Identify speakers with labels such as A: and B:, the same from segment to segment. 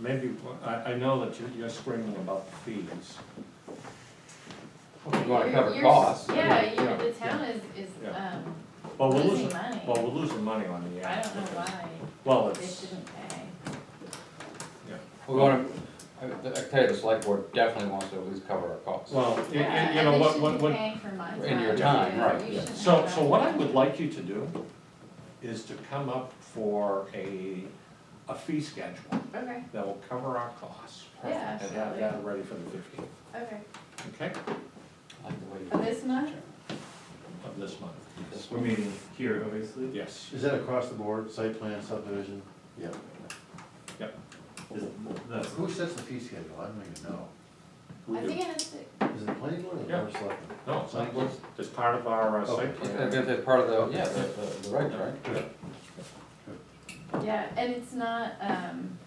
A: maybe, I, I know that you're, you're screaming about the fees.
B: You wanna
C: You're-
B: cover
C: you're-
B: costs. I mean,
C: Yeah,
B: you know,
C: you, the town is, is,
A: Yeah.
C: um,
A: Well, we're
C: losing
A: losing,
C: money.
A: well, we're losing money on the
C: I
A: ad.
C: don't know why
A: Well,
C: they
A: it's,
C: shouldn't pay.
B: We're gonna, I I tell you, the select board definitely wants to at least cover our costs.
A: well, you, you-
C: Yeah,
A: you know, what, what,
C: And they should be
A: what,
C: paying for my time.
B: In your time,
C: too.
B: right,
C: You
B: yeah.
C: shouldn't
A: so,
C: have
A: so what I
C: that.
A: would like you to do is to come up for a, a fee schedule
C: Okay,
A: that will cover our costs.
C: yeah,
A: And have
C: absolutely,
A: that ready for the fifteenth,
C: okay,
A: okay,
B: I like the way you-
C: for this month,
A: of this month,
B: this
D: We're
B: one.
D: meeting here, obviously.
A: yes.
E: Is that across the board, site plan, subdivision? Yeah.
D: Is- that's-
E: Who sets the fee schedule? I don't even know.
A: We
C: I
A: do.
C: think it has to,
E: Is it the planning board or the
A: Yeah.
E: board of selectmen?
A: No, it's not, it's part of our uh, site
E: Okay.
A: plan.
B: That- that- That's part of the, yeah, the, the- the regs, right?
C: yeah, and it's not, um,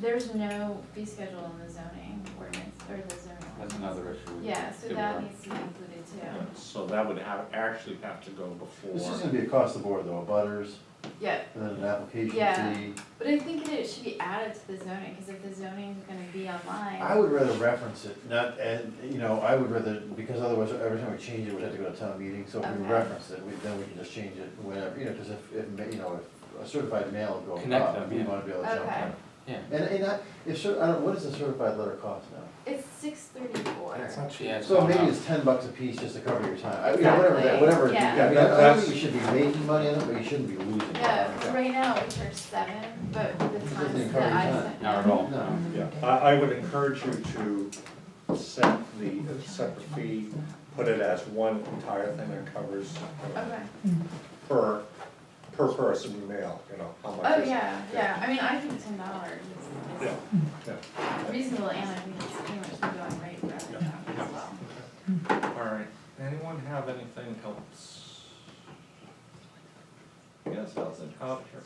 C: there's no fee schedule in the zoning ordinance, or the zoning.
B: That's
C: ordinance.
B: another issue. we-
C: Yeah, so
B: Yeah.
C: that needs to be included
A: Yeah,
C: too,
A: So that would have, actually have to go
E: This is
A: before,
E: gonna be across the board though, butters,
C: yeah,
E: and then an application
C: Yeah.
E: fee.
C: but I think that it should be added to the zoning, cause if the zoning's gonna be online.
E: I would rather reference it, not, and, you know, I would rather, because otherwise every time we change it, we'd have to go to town meeting, so if we
C: Okay.
E: reference it, we, then we can just change it whenever, you know, cause if, if, ma- you know, if a certified mail go
B: Connect
E: up,
B: them,
E: we
B: yeah.
E: wanna be able to jump
C: Okay,
E: on.
B: Yeah.
E: And, and I, if, cer- I don't, what does a certified letter cost now?
C: it's six thirty-four.
B: Yeah, it's
E: So
B: not
E: maybe
B: out.
E: it's ten bucks a piece just to cover your time, I, you know, whatever, that-
C: Exactly,
E: whatever, it is.
C: yeah.
E: I mean, I don't think you should be making money on it, but you shouldn't be losing money on it.
C: Yeah, right now we charge seven, but the
E: Doesn't
C: times
E: encourage
C: that I
E: that.
C: sent.
B: Not at
C: him-
B: all.
E: No,
A: yeah, I, I would encourage you to set the, set the fee, put it as one entire thing that covers
C: Okay,
A: per, per person mail, you know, how much
C: oh,
A: is.
C: yeah, yeah, I mean, I think ten dollars is
A: Yeah, yeah.
C: is reasonable, and I think it's pretty much the going rate for other
A: Yeah.
C: towns as well.
A: All right, anyone have anything else? Yes, I was out here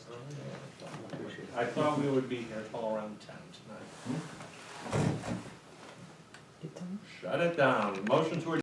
A: earlier. I thought we would be here all around ten tonight. Shut it down, motion to adjourn.